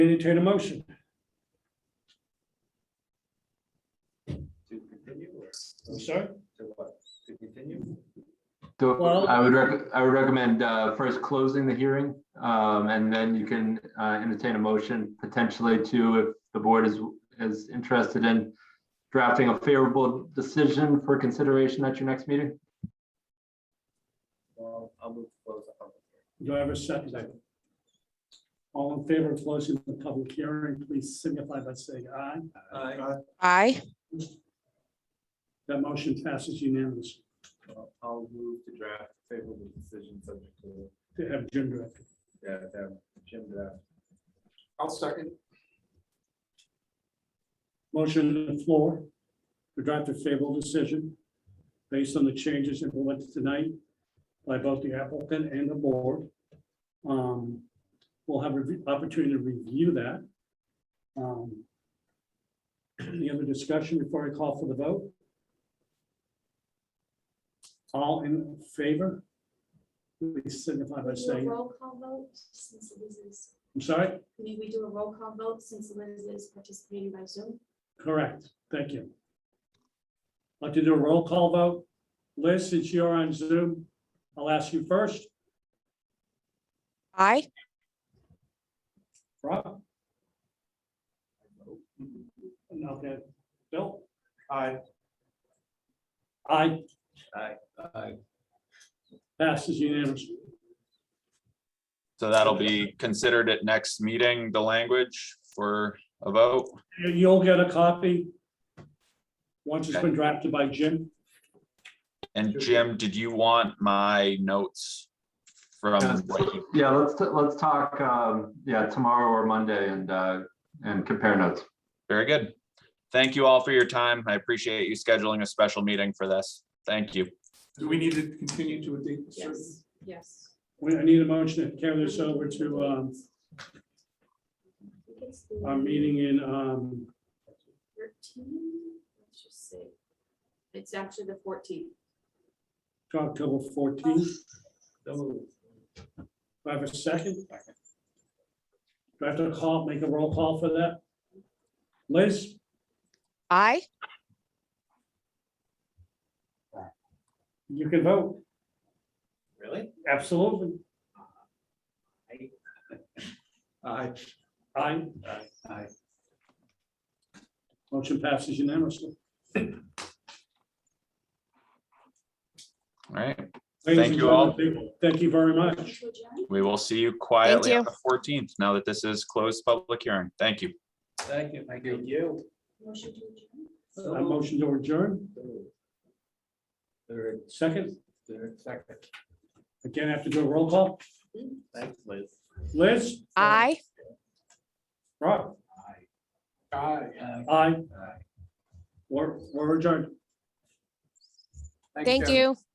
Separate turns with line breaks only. Entertain a motion.
To continue or
I'm sorry?
to what? To continue?
So
Well-
I would rec, I would recommend uh, first closing the hearing, um, and then you can uh, entertain a motion potentially to, if the board is, is interested in drafting a favorable decision for consideration at your next meeting.
Well, I'll move to close the public hearing.
Do I have a second? All in favor of closing the public hearing, please signify by saying aye.
Aye.
Aye.
That motion passes unanimously
Well, I'll move to draft favorable decision subject to,
to have Jim direct.
yeah, to have Jim draft.
I'll second.
Motion on the floor to draft a favorable decision based on the changes implemented tonight by both the applicant and the board. Um, We'll have an opportunity to review that. Um, Any other discussion before I call for the vote? All in favor? Please signify by
Can we do a
saying,
Roll call vote, since Liz is,
I'm sorry?
may we do a roll call vote since Liz is participating by Zoom?
Correct, thank you. Like to do a roll call vote. Liz, since you're on Zoom, I'll ask you first.
Aye.
Rob? Okay, Bill?
Aye.
Aye.
Aye.
Aye.
Passes unanimously.
So that'll be considered at next meeting, the language for a vote.
You- You'll get a copy once it's been drafted by Jim.
And Jim, did you want my notes from
Yeah,
what you-
Yeah, let's, let's talk, um, yeah, tomorrow or Monday and, uh, and compare notes.
Very good. Thank you all for your time. I appreciate you scheduling a special meeting for this. Thank you.
Do we need to continue to a date? certain?
yes.
We I need a motion to carry this over to um, our meeting in, um,
Thirteen, let's just see. It's actually the fourteenth.
October 14th. Do I have a second? Do I have to call, make a roll call for that? Liz,
Aye.
you can vote,
Really?
absolutely.
Aye.
Aye.
Aye.
Motion passes unanimously.
All right.
Ladies
Thank
and
you all.
gentlemen, Thank you very much.
We will see you quietly on
you.
the fourteenth, now that this is closed public hearing. Thank you.
Thank you.
Thank you.
Motion to adjourn.
A motion to adjourn,
Third,
second,
third, second.
again, I have to do a roll call.
Thanks, Liz.
Liz?
Aye.
Rob?
Aye.
Aye.
Aye.
We're, we're adjourned.
Thank you.